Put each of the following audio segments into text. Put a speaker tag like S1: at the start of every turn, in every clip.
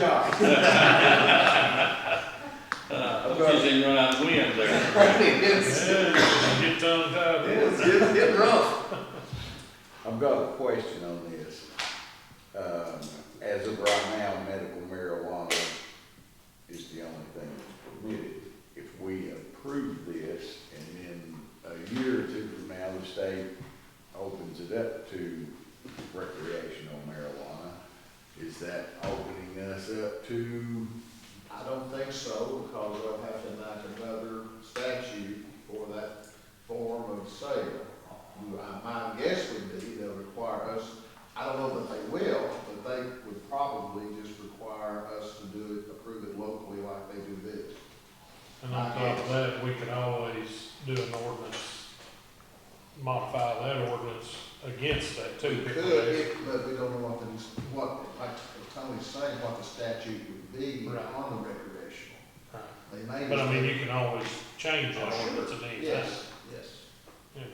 S1: job.
S2: Uh, because they run out of wind there.
S1: It's,
S3: Get tongue tied.
S1: it's, it's getting rough. I've got a question on this. Um, as of right now, medical marijuana is the only thing that's permitted. If we approve this and then a year or two from now, the state opens it up to recreational marijuana, is that opening us up to
S4: I don't think so, because they'll have to enact another statute for that form of sale. Who I- My guess would be they'll require us, I don't know that they will, but they would probably just require us to do it, approve it locally like they do this.
S3: And on top of that, we could always do an ordinance, modify that ordinance against that
S4: We
S3: too.
S4: could, if- but we don't know what the, what, like Tony's saying, what the statute would be
S3: Right.
S4: on the recreational.
S3: Right.
S4: They may.
S3: But I mean,
S4: just-
S3: you can always change that ordinance at any time.
S4: Yes, yes.
S3: you know.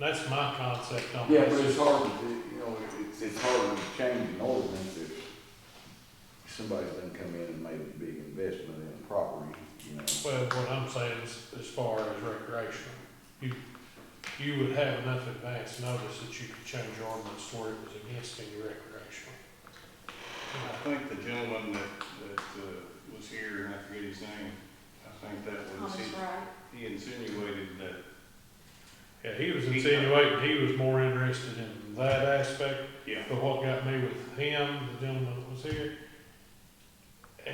S3: That's my concept on
S1: Yeah, but it's
S3: this.
S1: hard to, you know, it's, it's hard to change an ordinance if somebody's done come in and made a big investment in a property, you know.
S3: Well, what I'm saying is, as far as recreational, you, you would have enough advance notice that you could change your ordinance to where it was against any recreational.
S5: I think the gentleman that, that uh, was here, and I forget his name, I think that was,
S6: Thomas
S5: he-
S6: Wright.
S5: he insinuated that
S3: Yeah, he was insinuating, he was more interested in that aspect,
S5: Yeah.
S3: but what got me with him, the gentleman that was here,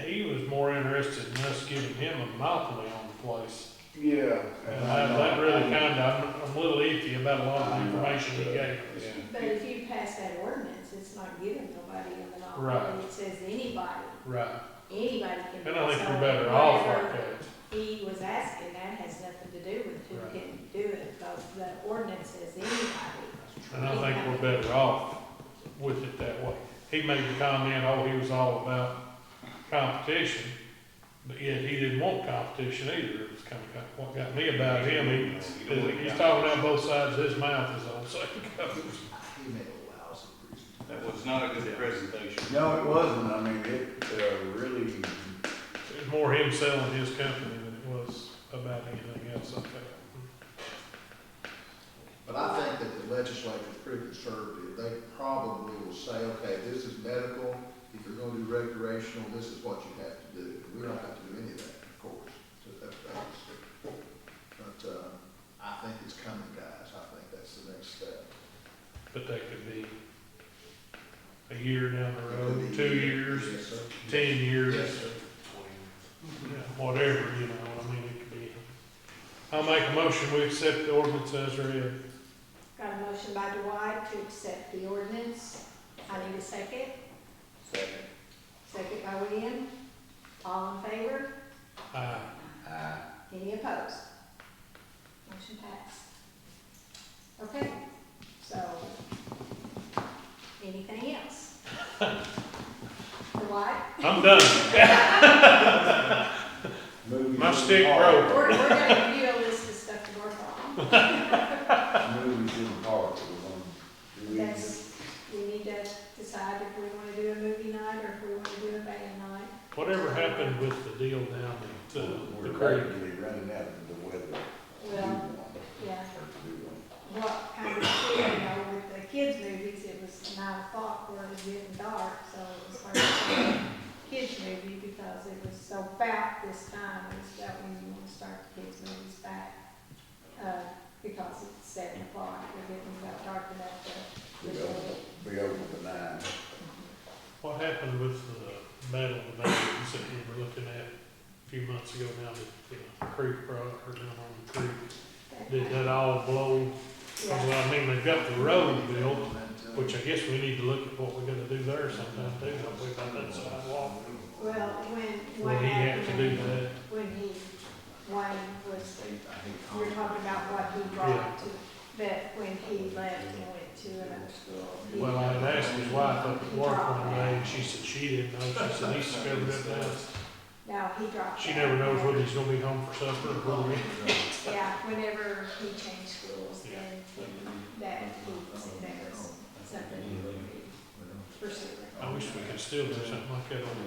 S3: he was more interested in us giving him a monopoly on the place.
S1: Yeah.
S3: And Uh, that, that really kinda, I'm, I'm a little iffy about a lot of the information he gave.
S5: Yeah.
S6: But if you pass that ordinance, it's not giving nobody a
S3: Right.
S6: monopoly, it says anybody,
S3: Right,
S6: anybody can.
S3: and I think we're
S6: decide
S3: better off
S6: whatever
S3: like that.
S6: He was asking, that has nothing to do with who
S3: Right.
S6: can do it, because the ordinance says anybody.
S3: And I think we're better off with it that way. He made the comment, oh, he was all about competition, but yet he didn't want competition either. It was kind of what got me about uh, him. He, he's talking out both sides of his mouth, as old saying goes.
S4: He made a lousy presentation.
S5: That was not a good presentation.
S1: No, it wasn't, I mean, it, uh, really,
S3: It was more him selling his company than it was about anything else, I think.
S4: But I think that the legislature's pretty conservative. They probably will say, okay, this is medical, if you're gonna do recreational, this is what you have to do. We don't have to do any of that, of course. So that- that's- But, uh, I think it's coming, guys. I think that's the next step.
S3: But that could be a year down the
S4: Could
S3: road,
S4: be-
S3: two years,
S4: Yes, sir.
S3: ten years.
S4: Yes, sir.
S3: Yeah, whatever, you know, I mean, it could be. I'll make a motion, we accept the ordinance as read.
S6: Got a motion by Dwight to accept the ordinance. I need a second.
S1: second,
S6: Second by William. All in favor?
S3: Aye.
S1: I,
S6: Any opposed? Motion passed. Okay, so, anything else? Dwight?
S3: I'm done.
S1: moving.
S3: My stick broke.
S6: We're, we're gonna give you a list of stuff to work on.
S1: Movies in the park, we're gonna do it.
S6: That's, we need to decide if we wanna do a movie night or if we wanna do a band night.
S3: Whatever happened with the deal down at uh,
S1: We're
S3: the creek?
S1: rapidly running out of the weather. to do
S6: Well,
S1: one, or
S6: Yeah,
S1: to uh, do one.
S6: what kind of feel, you know, with the kids' movies, it was nine o'clock where it was getting dark, so it was hard to do a kids' movie because it was so about this time, it's about when you wanna start the kids' movies back. Uh, because it's seven o'clock, we're getting about dark enough to.
S1: Be open, be open to nine.
S3: What happened with the metal dimensions that we were looking at a few months ago down at the creek, bro, or down on the creek? Did that all blow?
S6: Yeah.
S3: Well, I mean, they've got the road built,
S4: Momentum.
S3: which I guess we need to look at what we're gonna do there sometime too, don't we, about that sidewalk?
S6: Well, when,
S3: Will
S6: what
S3: he have to do
S6: happened
S3: that?
S6: when he, Wayne was, you're talking about what he brought to, but when he left and went to another school. he-
S3: Well, I had asked his wife up at
S6: he
S3: work
S6: dropped
S3: one
S6: that.
S3: day, and she said she didn't know, she said he's discovered it now.
S6: No, he dropped
S3: She
S6: that.
S3: never knows whether he's gonna be home for supper or whether he-
S6: Yeah, whenever he changed schools,
S3: Yeah.
S6: then that, he said
S4: Oh,
S6: that was something he would be pursuing.
S3: I wish we could still do something like that on the